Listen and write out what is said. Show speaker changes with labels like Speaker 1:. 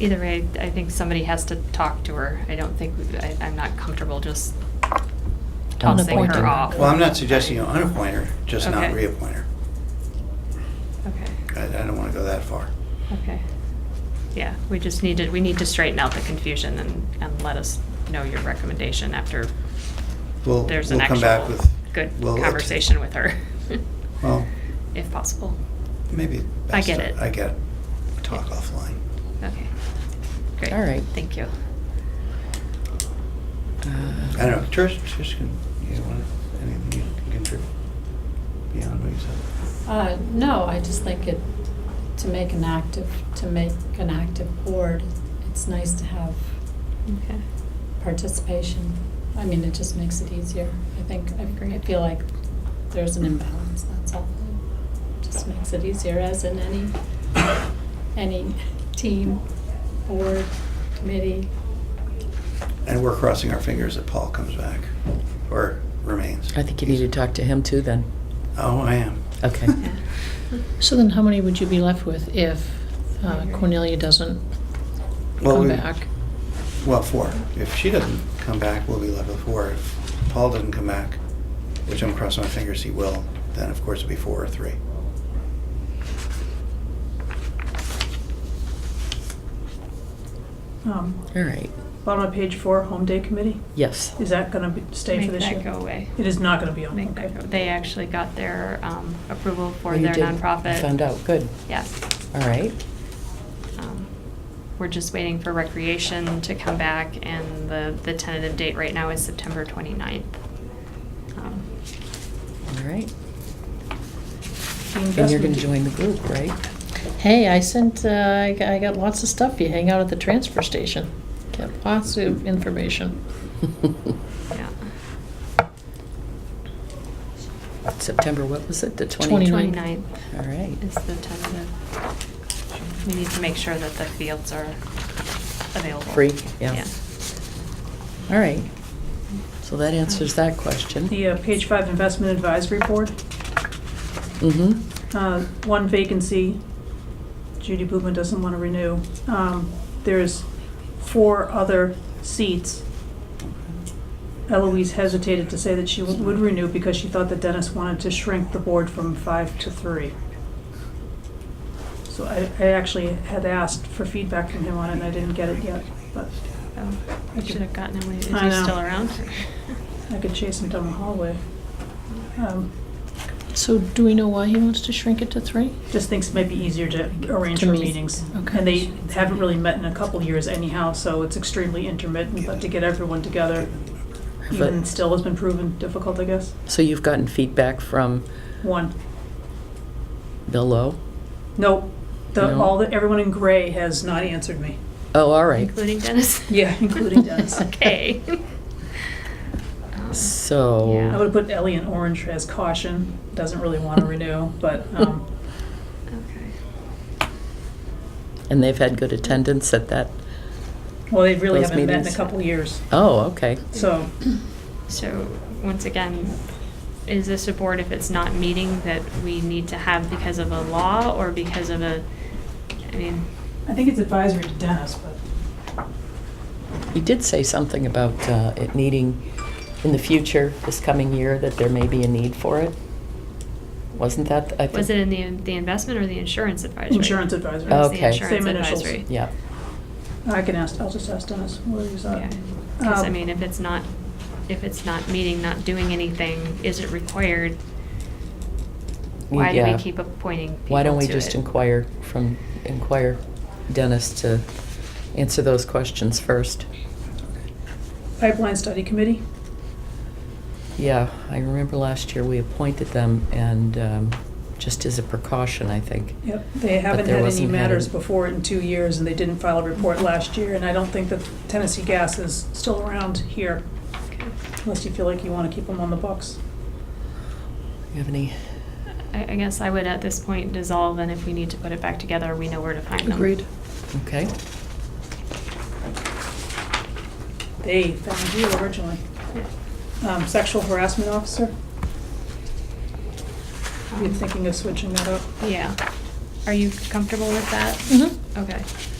Speaker 1: either way, I think somebody has to talk to her. I don't think, I, I'm not comfortable just tossing
Speaker 2: Unappointing.
Speaker 1: her off.
Speaker 3: Well, I'm not suggesting you unappoint her, just not
Speaker 1: Okay.
Speaker 3: reappoint her.
Speaker 1: Okay,
Speaker 3: I, I don't want to go that far.
Speaker 1: okay. Yeah, we just need to, we need to straighten out the confusion and, and let us know your recommendation after
Speaker 3: We'll,
Speaker 1: there's an
Speaker 3: we'll come back
Speaker 1: actual
Speaker 3: with.
Speaker 1: good
Speaker 3: we'll-
Speaker 1: conversation with her,
Speaker 3: Well,
Speaker 1: if possible.
Speaker 3: maybe.
Speaker 1: I
Speaker 3: best
Speaker 1: get
Speaker 3: to-
Speaker 1: it.
Speaker 3: I get, it. talk offline.
Speaker 1: Okay. Great.
Speaker 2: All right.
Speaker 1: Thank you.
Speaker 2: Uh,
Speaker 3: I don't know, Trish, Trish, can, you want, anything you can contribute beyond what you said?
Speaker 4: Uh, no, I just like it, to make an active, to make an active board, it's nice to have
Speaker 1: Okay.
Speaker 4: participation. I mean, it just makes it easier. I think, I agree, I feel like there's an imbalance, that's all. It Just makes it easier, as in any, any team, board, committee.
Speaker 3: And we're crossing our fingers that Paul comes back, or remains.
Speaker 2: I think you need to talk to him too then.
Speaker 3: Oh, I am.
Speaker 2: Okay.
Speaker 1: Yeah.
Speaker 5: So then how many would you be left with if
Speaker 1: I
Speaker 5: uh,
Speaker 1: agree.
Speaker 5: Cornelia doesn't
Speaker 3: Well,
Speaker 5: come
Speaker 3: we-
Speaker 5: back?
Speaker 3: Well, four. If she doesn't come back, we'll be left with four. If Paul doesn't come back, which I'm crossing my fingers he will, then of course it'll be four or three.
Speaker 6: Um,
Speaker 2: All right.
Speaker 6: Bottom of page four, home day committee,
Speaker 2: Yes.
Speaker 6: is that gonna be, stay
Speaker 1: Make
Speaker 6: for this year?
Speaker 1: that go away.
Speaker 6: It is not gonna be on,
Speaker 1: Make that
Speaker 6: okay.
Speaker 1: go. They actually got their um, approval for
Speaker 2: Well, you
Speaker 1: their
Speaker 2: did.
Speaker 1: nonprofit.
Speaker 2: You Found out. Good.
Speaker 1: Yes.
Speaker 2: All right.
Speaker 1: Um, We're just waiting for recreation to come back, and the, the tentative date right now is September 29th. Um,
Speaker 2: All right.
Speaker 6: The
Speaker 2: And you're going
Speaker 6: investment-
Speaker 2: to join the group, right?
Speaker 5: Hey, I sent, uh, I g- I got lots of stuff. You hang out at the transfer station. Got lots of information.
Speaker 1: Yeah.
Speaker 2: September, what was it? The 20th?
Speaker 5: 29th.
Speaker 1: 29th
Speaker 2: All right.
Speaker 1: is the tentative. We need to make sure that the fields are available.
Speaker 2: Free, yeah. All right. So that answers that question.
Speaker 6: The, uh, page five, investment advisory board,
Speaker 2: Mm-hmm.
Speaker 6: uh, one vacancy, Judy Booman doesn't wanna renew. Um, there's four other seats. Eloise hesitated to say that she would would renew because she thought that Dennis wanted to shrink the board from five to three. So I, I actually had asked for feedback from him on it and I didn't get it yet, but
Speaker 1: Oh, I should have gotten him, is he
Speaker 6: I know.
Speaker 1: still around?
Speaker 6: I could chase him down the hallway. Um,
Speaker 5: So do we know why he wants to shrink it to three?
Speaker 6: Just thinks it might be easier to arrange
Speaker 5: To
Speaker 6: for
Speaker 5: meet.
Speaker 6: meetings.
Speaker 5: Okay.
Speaker 6: And they haven't really met in a couple years anyhow, so it's extremely intermittent, but to get everyone together, even
Speaker 2: But,
Speaker 6: still has been proven difficult, I guess.
Speaker 2: so you've gotten feedback from
Speaker 6: One,
Speaker 2: Bill Lowe?
Speaker 6: nope, the,
Speaker 2: No.
Speaker 6: all, the everyone in gray has not answered me.
Speaker 2: Oh, all right.
Speaker 1: Including Dennis?
Speaker 6: Yeah, including Dennis.
Speaker 1: Okay. Um,
Speaker 6: I
Speaker 2: So,
Speaker 6: would put Ellie in orange as caution, doesn't really want to renew, but, um,
Speaker 1: Okay.
Speaker 2: and they've had good attendance at that?
Speaker 6: well, they really
Speaker 2: Those
Speaker 6: haven't met in a
Speaker 2: meetings.
Speaker 6: couple years,
Speaker 2: Oh, okay.
Speaker 6: so.
Speaker 1: So, once again, is this a board if it's not meeting that we need to have because of a law or because of a, I mean,
Speaker 6: I think it's advisory to Dennis, but.
Speaker 2: You did say something about uh, it needing, in the future, this coming year, that there may be a need for it? Wasn't that? I think-
Speaker 1: was it in the, the investment or the insurance advisory?
Speaker 6: Insurance advisory.
Speaker 1: It was the
Speaker 2: Okay.
Speaker 1: insurance
Speaker 6: Same initials.
Speaker 1: advisory.
Speaker 2: Yeah.
Speaker 6: I can ask, I'll just ask Dennis, what is that?
Speaker 1: Because, I
Speaker 6: Um,
Speaker 1: mean, if it's not, if it's not meeting, not doing anything, is it required? Why do
Speaker 2: Yeah.
Speaker 1: we keep appointing people
Speaker 2: Why don't we
Speaker 1: to
Speaker 2: just
Speaker 1: it?
Speaker 2: inquire from, inquire Dennis to answer those questions first?
Speaker 6: Pipeline Study Committee,
Speaker 2: Yeah, I remember last year we appointed them and um, just as a precaution, I think.
Speaker 6: yep, they haven't
Speaker 2: there
Speaker 6: had any
Speaker 2: wasn't had
Speaker 6: matters
Speaker 2: any-
Speaker 6: before in two years, and they didn't file a report last year, and I don't think that Tennessee Gas is still around here,
Speaker 1: Okay.
Speaker 6: unless you feel like you want to keep them on the books.
Speaker 2: You have any?
Speaker 1: I, I guess I would at this point dissolve, and if we need to put it back together, we know where to find them.
Speaker 5: Agreed.
Speaker 2: Okay.
Speaker 6: They found you originally.
Speaker 1: Yeah.
Speaker 6: Um, Sexual Harassment Officer, you're
Speaker 1: Um,
Speaker 6: thinking of switching that up?
Speaker 1: Yeah. Are you comfortable with that?
Speaker 4: Mm.
Speaker 5: Mm-hmm.
Speaker 1: Okay.